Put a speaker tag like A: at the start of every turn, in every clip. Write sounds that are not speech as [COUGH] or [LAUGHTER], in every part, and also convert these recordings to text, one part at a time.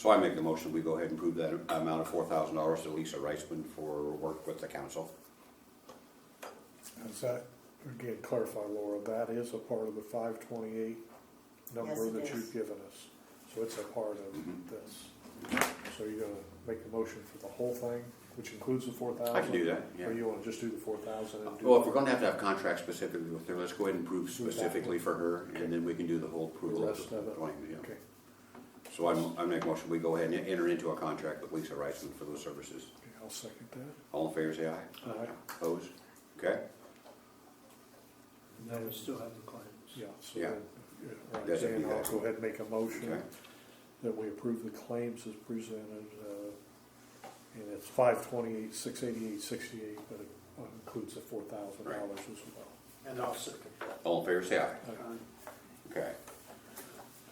A: So I make the motion, we go ahead and approve that amount of four thousand dollars to Lisa Reisman for work with the council.
B: Is that, again, clarify Laura, that is a part of the five twenty-eight
C: Yes,
B: number
C: it
B: that
C: is.
B: you've given us. So it's a part of this. So you're gonna make the motion for the whole thing, which includes the four thousand?
A: I can do that,
B: Or
A: yeah. Uh,
B: you wanna just do the four thousand and do?
A: Well, if we're gonna have to have contracts specifically with her, let's go ahead and approve specifically for her, and then we can do the whole approval.
B: The
A: of
B: rest of
A: the
B: it.
A: claim, yeah.
B: Okay,
A: So I'm, I make a motion, we go ahead and enter into a contract with Lisa Reisman for those services.
B: okay, I'll second that.
A: All in favor, say aye.
B: All right,
A: Opposed? Okay,
D: Now we still have the claims.
B: yeah, so
A: Yeah.
B: then, yeah, all right,
A: Doesn't
B: Dan,
A: do
B: I'll
A: that.
B: go ahead and make a motion
A: okay.
B: that we approve the claims as presented, uh, and it's five twenty-eight, six eighty-eight, sixty-eight, but it includes the four thousand dollars as well.
D: And I'll second that.
A: All in favor, say aye.
D: Uh,
A: Okay.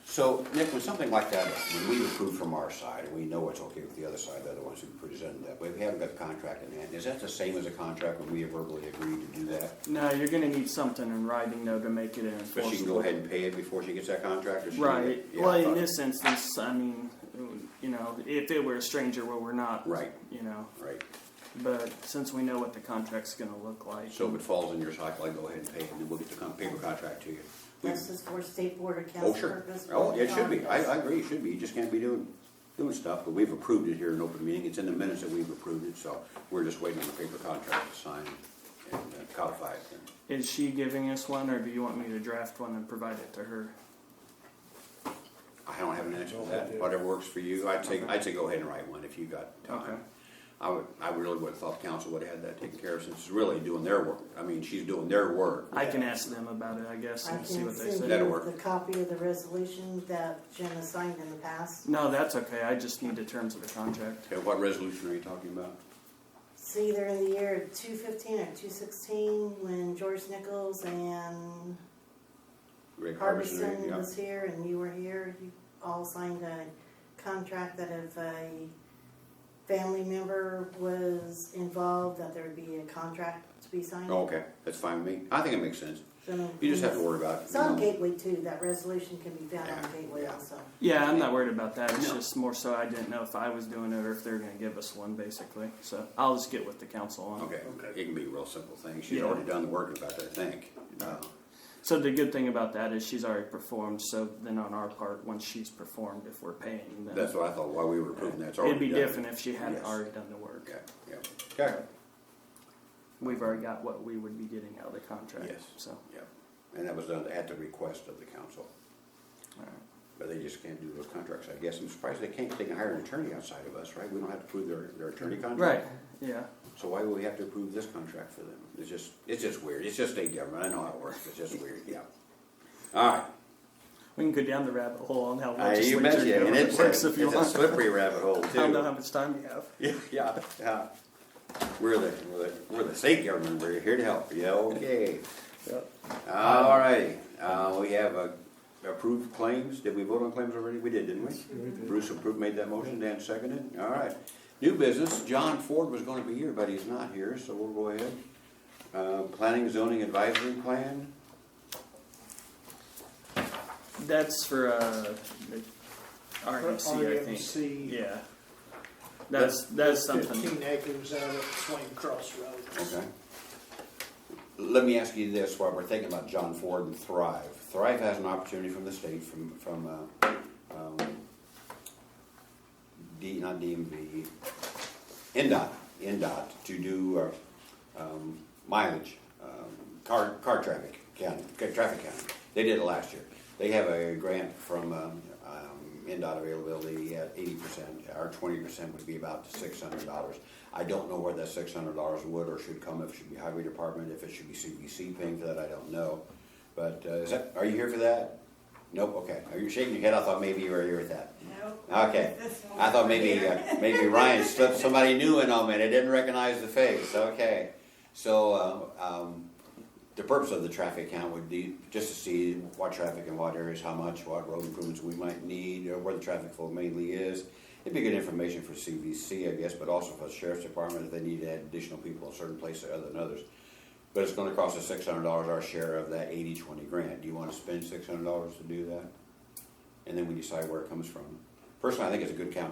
A: So, Nick, when something like that, when we approve from our side, and we know it's okay with the other side, they're the ones who presented that, but we haven't got the contract in hand, is that the same as a contract when we verbally agreed to do that?
E: No, you're gonna need something in writing though to make it
A: But
E: enforceable.
A: she can go ahead and pay it before she gets that contract, or she?
E: Right.
A: Yeah, I
E: well, in
A: thought-
E: this instance, I mean, it would- you know, if it were a stranger, well, we're not.
A: Right.
E: You know,
A: Right,
E: but since we know what the contract's gonna look like,
A: so if it falls in your cycle, I go ahead and pay it, and then we'll get the con- paper contract to you. We-
C: This is for state board of
A: Oh,
C: council
A: sure,
C: purpose.
A: oh, it should be, I, I agree, it should be, you just can't be doing, doing stuff, but we've approved it here in open meeting, it's in the minutes that we've approved it, so we're just waiting on the paper contract to sign and uh, codify it. and-
E: is she giving us one, or do you want me to draft one and provide it to her?
A: I don't have an answer
B: No,
A: to
B: I
A: that.
B: do.
A: Whatever works for you. I'd say, I'd say go ahead and write one if you got
E: Okay.
A: time. I would, I really would have thought council would have had that taken care of since it's really doing their work. I mean, she's doing their work.
E: I can ask them about it, I guess,
C: I
E: and
C: can
E: see
C: send
E: what they
C: you
E: say.
A: That'll work.
C: the copy of the resolution that Jim has signed in the past.
E: No, that's okay. I just need the terms of the contract.
A: Okay, what resolution are you talking about?
C: It's either in the year two fifteen or two sixteen, when George Nichols and
A: Rick Harbison,
C: Harbison
A: yeah.
C: was here and you were here, you all signed a contract that if a family member was involved, that there would be a contract to be signed.
A: Oh, Okay, that's fine with me. I think it makes sense.
C: So-
A: You just have to worry about it.
C: It's on
A: you know.
C: Gateway too, that resolution can be found on
A: Yeah,
C: Gateway
A: yeah.
C: also.
E: Yeah, I'm not worried about that. It's
A: No.
E: just more so I didn't know if I was doing it or if they were gonna give us one, basically. So I'll just get with the council on it.
A: Okay,
D: Okay.
A: it can be a real simple thing. She's
E: Yeah.
A: already done the work about that, I think. Uh,
E: So the good thing about that is she's already performed. So then on our part, once she's performed, if we're paying, then
A: That's what I thought while we were approving that. It's already
E: it'd be
A: done.
E: different if she had
A: Yes.
E: not already done the work.
A: Okay, yeah. Okay,
E: We've already got what we would be getting out of the contract.
A: Yes.
E: So
A: yeah. And that was done at the request of the council.
E: all right.
A: But they just can't do those contracts, I guess. I'm surprised they can't, they can hire an attorney outside of us, right? We don't have to approve their, their attorney
E: right,
A: contract.
E: yeah.
A: So why would we have to approve this contract for them? It's just, it's just weird. It's just state government. I know how it works. It's just weird, yeah. All right.
E: We can go down the rabbit hole on how
A: Uh,
E: legislature
A: You mentioned it, and
E: government
A: it's, a-
E: works if you
A: it's a
E: want.
A: slippery rabbit hole
E: I don't know
A: too.
E: how much time we have.
A: [LAUGHS] Yeah, yeah, yeah. We're the, we're the, we're the state government. We're here to help. Yeah, okay.
E: Yep.
A: All righty. Uh, we have uh, approved claims. Did we vote on claims already? We did, didn't we? Bruce approved, made that motion, Dan seconded, all right. New business, John Ford was gonna be here, but he's not here, so we'll go ahead. Uh, planning zoning advisory plan,
E: That's for uh, the RMC, I think.
D: RMC.
E: Yeah. That's that's something.
D: Fifteen acres out at Swain Cross Road.
A: okay. Let me ask you this, while we're thinking about John Ford and Thrive, Thrive has an opportunity from the state, from, from, uh, um, D, not DMV, NDOT, NDOT, to do, uh, um, mileage, um, car, car traffic county, ca- traffic county. They did it last year. They have a grant from, um, um, NDOT availability at eighty percent, or twenty percent would be about six hundred dollars. I don't know where that six hundred dollars would or should come, if it should be highway department, if it should be CBC paying for that, I don't know. But, uh, is that, are you here for that? Nope, okay. Are you shaking your head? I thought maybe you were here with that. Okay. I thought maybe, uh, maybe Ryan slipped somebody new in on me and I didn't recognize the face, okay. So, uh, um, the purpose of the traffic count would be just to see what traffic in what areas, how much, what road improvements we might need, or where the traffic flow mainly is. It'd be good information for CVC, I guess, but also for the sheriff's department if they need to add additional people in certain places other than others. But it's gonna cost us six hundred dollars our share of that eighty twenty grant. Do you wanna spend six hundred dollars to do that? And then we decide where it comes from. personally, I think it's a good count.